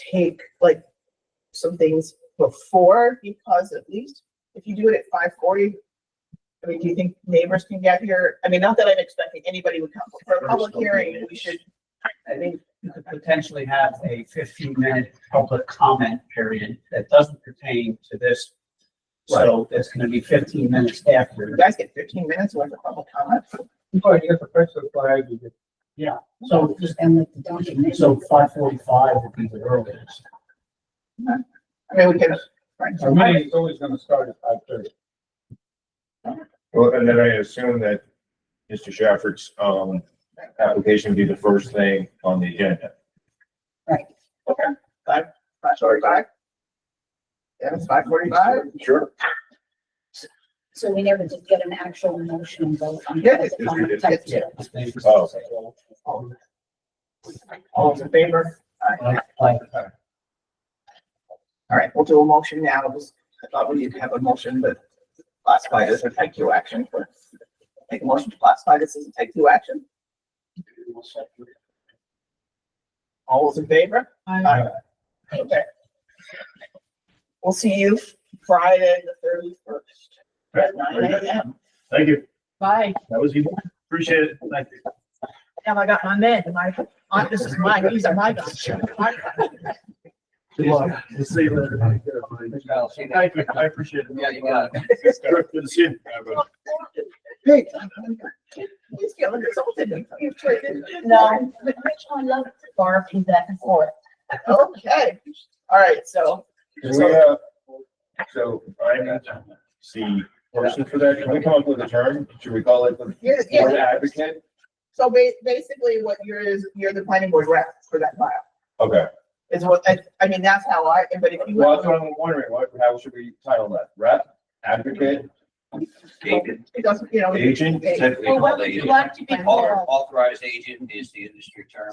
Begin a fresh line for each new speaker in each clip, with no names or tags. take like some things before because at least if you do it at five forty. I mean, do you think neighbors can get here? I mean, not that I'm expecting anybody would come but for a public hearing, we should.
I think you could potentially have a fifteen minute public comment period that doesn't pertain to this. So that's gonna be fifteen minutes
You
after.
guys get fifteen minutes worth of public comment.
Well, you have the press so far, you just-
So just, so five forty-five would be the earliest.
I mean, we can. right.
Our meeting is always gonna start at five thirty.
Well, and then I assume that Mr. Shafford's, um, application would be the first thing on the agenda.
Five forty-five? Yeah, it's five forty-five.
Sure.
So we never did get an actual motion and vote on.
Yeah, it's-
the type two.
Oh.
All those in favor? All right, we'll do a motion now. Just- I thought we didn't have a motion, but classify this as a type two action. but Make a motion to classify this as a type two action. All those in favor? Aye. Okay. We'll see you Friday, the thirty-first, at nine AM.
Thank you.
Bye.
That was easy. Appreciate it. Thank you.
Now I got my men, my, uh, this is mine, these are my guns.
Good luck.
We'll see you later. Thank you. I appreciate it.
Yeah, you got
Good to see you.
Hey. He's feeling insulted. You've traded.
No, but Rich, I love to barf back and forth.
Okay, all right, so
Do we have, so I'm the person for that. Can we come up with a term? Should we call it the
you're,
board
yeah,
advocate?
so ba- basically what you're is, you're the planning board rep for that file,
Okay.
is what, I, I mean, that's how I, but if you.
Well, that's what I'm wondering. What, how should we title that? Rep, advocate,
It doesn't, you know.
agent?
Typically,
Well, what
called
would you
agent.
like to be
Author-
called?
Authorized agent is the industry term.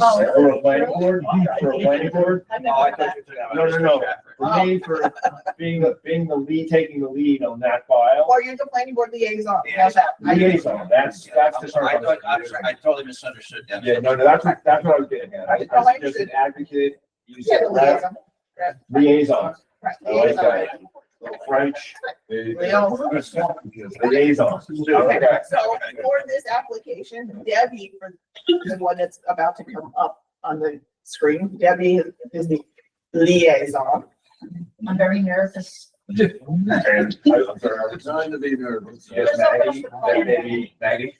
Oh.
For a planning board, for a planning board,
I've
Oh, I
never heard
thought
that.
you were talking about
No, no, no.
Mr. Stafford.
for me, for being the, being the lead, taking the lead on that file.
Or you're the planning board liaison,
Yeah.
how's that? I-
Liaison, that's, that's the term.
I
I'm
thought, I'm
using.
sorry, I totally misunderstood that.
Yeah, no, no, that's, what- that's what I was getting at. I, I
Oh, I
was just
understood.
an advocate, you
Yeah,
said
the
rep,
liaison.
liaison,
Right,
I like
liaison.
that. Little French.
Liaison.
Liaison.
Okay,
Okay.
so for this application, Debbie, for the one that's about to come up on the screen, Debbie is the liaison.
I'm very nervous.
And I- I'm sorry, I was-
Designed to be nervous.
Yes, Maggie, that maybe, Maggie,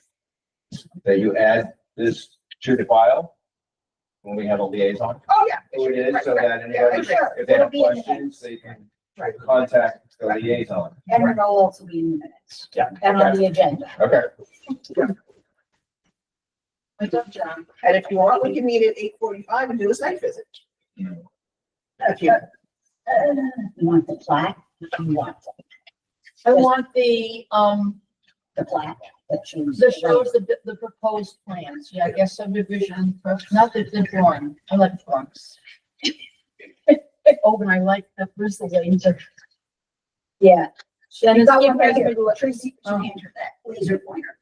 that you add this to the file when we have a liaison.
Oh, yeah.
Who it is, so that anybody,
Right, sure.
if they have questions, they can
Right.
contact the liaison.
And it'll also be in the minutes.
Yeah.
And on the agenda.
Okay.
What's up, John?
And if you want, we can meet at eight forty-five and do a site visit.
Mm.
If you,
Uh, You want the plaque? You want it.
I want the, um,
the plaque that shows.
the shows, the, the proposed plans. Yeah, I guess subdivision, not the, the drawing. I like drawings. Oh, and I like the Bristol lanes.
Yeah.
That
You
is-
got one right here, Tracy,
Oh.
hand her that laser pointer.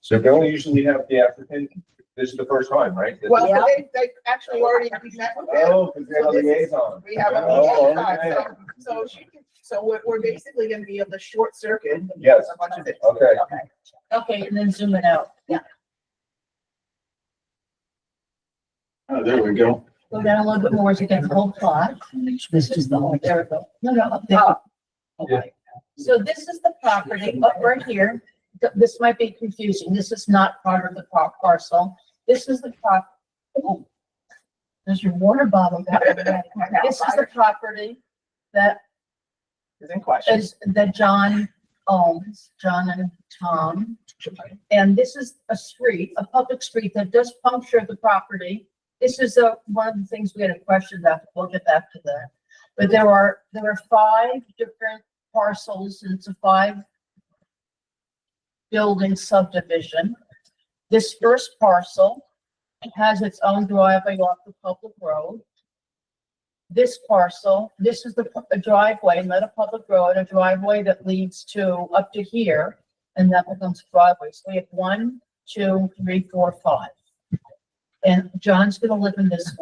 So don't usually have the applicant, this is the first time, right? This is-
well, so they, they actually already met with it.
Oh, because they're liaison.
We have a
Oh,
meeting at
okay.
five, so, so she can, so we're, we're basically gonna be able to short circuit.
Yes.
A bunch of it.
Okay,
Okay.
Okay, and then zoom it out.
Oh, there we go.
Go down a little bit more to get the whole plot.
This is the whole. Oh.
There we go. No, no, up there. So this is the property up right here. Th- This might be confusing. This is not part of the par- parcel. This is the prop. oh, There's your water bottle. down there. This is the property that
Is in question.
is, that John owns, John and Tom. And this is a street, a public street that does puncture the property. This is a, one of the things we had a question about, but we'll get back to that. But there are, there are five different parcels, and it's a five building subdivision. This first parcel has its own driveway off the public road this parcel, this is the pu- a driveway, not a public road, a driveway that leads to up to here, and that becomes driveway. So we have one, two, three, four, five. And John's gonna live in this one.